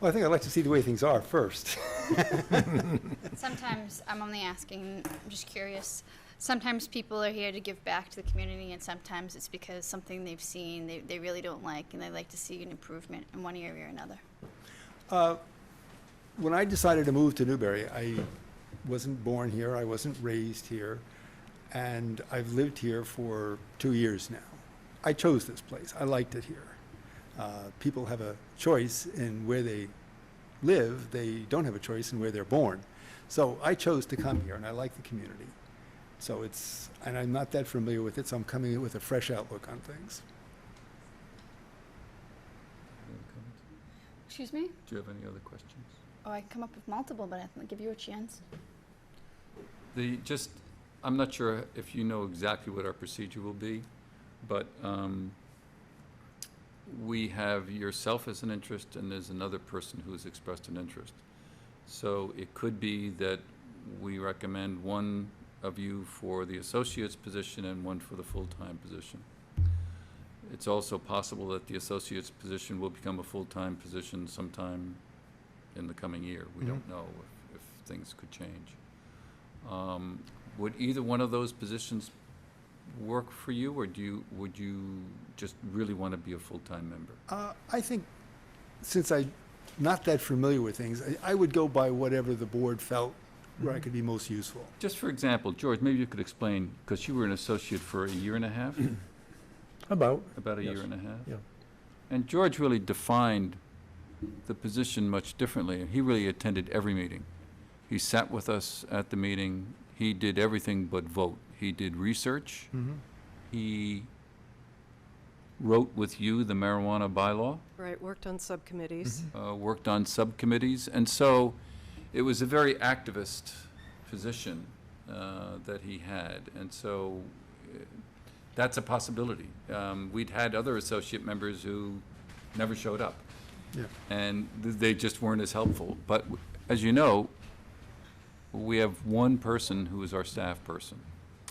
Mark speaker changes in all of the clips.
Speaker 1: Well, I think I'd like to see the way things are first.
Speaker 2: Sometimes, I'm only asking, I'm just curious, sometimes people are here to give back to the community, and sometimes it's because something they've seen, they, they really don't like, and they like to see an improvement in one area or another.
Speaker 1: When I decided to move to Newbury, I wasn't born here, I wasn't raised here, and I've lived here for two years now. I chose this place, I liked it here. Uh, people have a choice in where they live, they don't have a choice in where they're born. So I chose to come here, and I like the community. So it's, and I'm not that familiar with it, so I'm coming in with a fresh outlook on things.
Speaker 2: Excuse me?
Speaker 3: Do you have any other questions?
Speaker 2: Oh, I can come up with multiple, but I'll give you a chance.
Speaker 3: The, just, I'm not sure if you know exactly what our procedure will be, but um, we have yourself as an interest, and there's another person who's expressed an interest. So it could be that we recommend one of you for the associate's position and one for the full-time position. It's also possible that the associate's position will become a full-time position sometime in the coming year. We don't know if, if things could change. Um, Would either one of those positions work for you, or do you, would you just really want to be a full-time member?
Speaker 1: Uh, I think, since I'm not that familiar with things, I, I would go by whatever the board felt where
Speaker 3: Mm-hmm.
Speaker 1: I could be most useful.
Speaker 3: Just for example, George, maybe you could explain, because you were an associate for a year and a half,
Speaker 4: About,
Speaker 3: about a year
Speaker 4: Yes.
Speaker 3: and a half?
Speaker 4: Yeah.
Speaker 3: And George really defined the position much differently, and he really attended every meeting. He sat with us at the meeting, he did everything but vote. He did research,
Speaker 4: Mm-hmm.
Speaker 3: he wrote with you the marijuana bylaw,
Speaker 5: Right, worked on subcommittees.
Speaker 3: uh, worked on subcommittees, and so it was a very activist position uh, that he had, and so uh, that's a possibility. Um, We'd had other associate members who never showed up,
Speaker 1: Yeah.
Speaker 3: and th- they just weren't as helpful. But w- as you know, we have one person who is our staff person,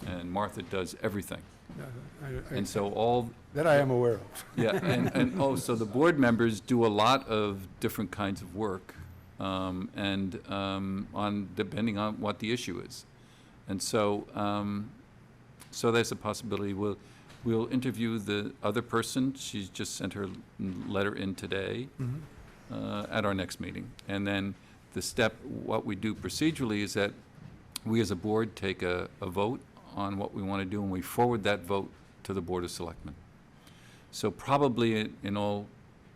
Speaker 3: and Martha does everything.
Speaker 1: I- I-
Speaker 3: And so all,
Speaker 1: That I am aware of.
Speaker 3: yeah, and, and, oh, so the board members do a lot of different kinds of work, um, and, um, on, depending on what the issue is. And so, um, so there's a possibility, we'll, we'll interview the other person, she's just sent her letter in today, uh, at our next meeting. And then the step, what we do procedurally is that we as a board take a, a vote on what we want to do, and we forward that vote to the Board of Selectmen. So probably in- in all,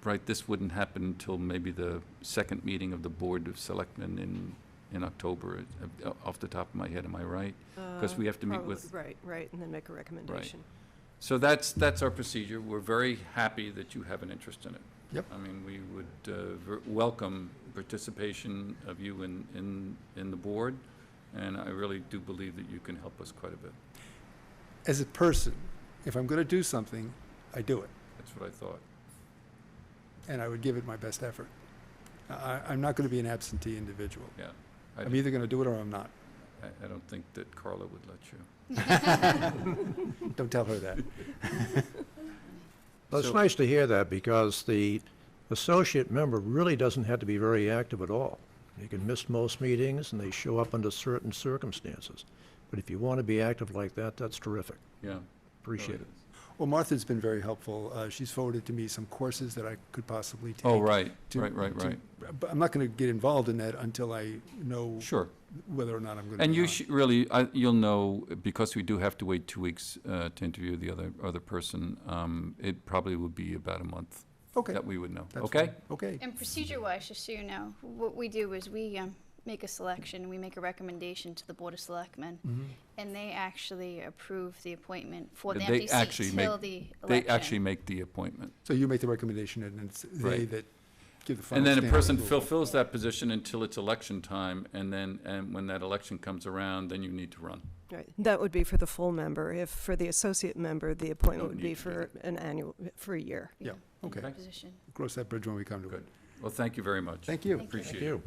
Speaker 3: right, this wouldn't happen until maybe the second meeting of the Board of Selectmen in, in October, uh, off the top of my head, am I right? Because Mm-hmm. we have to meet
Speaker 5: uh, Probably-
Speaker 3: with,
Speaker 5: Right, right, and then make a recommendation.
Speaker 3: so that's, that's our procedure. We're very happy that you have an interest in it.
Speaker 1: Yep.
Speaker 3: I mean, we would uh, ver- welcome participation of you in, in, in the board, and I really do believe that you can help us quite a bit.
Speaker 1: As a person, if I'm going to do something, I do it,
Speaker 3: That's what I thought.
Speaker 1: and I would give it my best effort. I, I'm not going to be an absentee individual.
Speaker 3: Yeah. I
Speaker 1: I'm either going to do it or I'm not.
Speaker 3: I, I don't think that Carla would let you.
Speaker 1: Don't tell her that.
Speaker 4: Well, it's
Speaker 3: So-
Speaker 4: nice to hear that because the associate member really doesn't have to be very active at all. You can miss most meetings and they show up under certain circumstances. But if you want to be active like that, that's terrific.
Speaker 3: Yeah.
Speaker 4: Appreciate it.
Speaker 1: Well, Martha's been very helpful. Uh, she's forwarded to me some courses that I could possibly take.
Speaker 3: Oh, right,
Speaker 1: to-
Speaker 3: right, right,
Speaker 1: to-
Speaker 3: right.
Speaker 1: But I'm not going to get involved in that until I know
Speaker 3: Sure.
Speaker 1: whether or not I'm going to.
Speaker 3: And you should, really, I- you'll know, because we do have to wait two weeks uh, to interview the other, other person, um, it probably would be about a month
Speaker 1: Okay.
Speaker 3: that we would know,
Speaker 1: that's
Speaker 3: okay?
Speaker 1: fine. Okay.
Speaker 2: And procedure-wise, just so you know, what we do is we um, make a selection, we make a recommendation to the Board of Selectmen,
Speaker 3: Mm-hmm.
Speaker 2: and they actually approve the appointment for the
Speaker 3: They
Speaker 2: empty
Speaker 3: actually
Speaker 2: seat
Speaker 3: make-
Speaker 2: till the election.
Speaker 3: They actually make the appointment.
Speaker 1: So you make the recommendation, and it's they
Speaker 3: Right.
Speaker 1: that give the final.
Speaker 3: And then a
Speaker 1: stamp
Speaker 3: person
Speaker 1: approval.
Speaker 3: fulfills that position until it's election time, and then, and when that election comes around, then you need to run.
Speaker 5: Right, that would be for the full member. If, for the associate member, the appointment
Speaker 3: Don't
Speaker 5: would be
Speaker 3: need to do
Speaker 5: for an annual, for a year.
Speaker 1: Yeah, okay.
Speaker 3: Okay.
Speaker 2: Position.
Speaker 1: Cross that bridge when we come to it.
Speaker 3: Good. Well, thank you very much.
Speaker 1: Thank you.
Speaker 2: Thank you.
Speaker 3: Appreciate
Speaker 4: Thank
Speaker 3: it.
Speaker 4: you.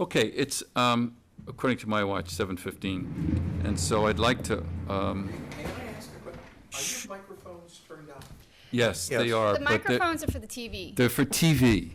Speaker 3: Okay, it's, um, according to my watch, seven fifteen, and so I'd like to, um,
Speaker 6: May I ask a question? Are your microphones turned on?
Speaker 3: yes, they
Speaker 4: Yes.
Speaker 3: are,
Speaker 2: The
Speaker 3: but they're,
Speaker 2: microphones are for the TV.
Speaker 3: they're for TV.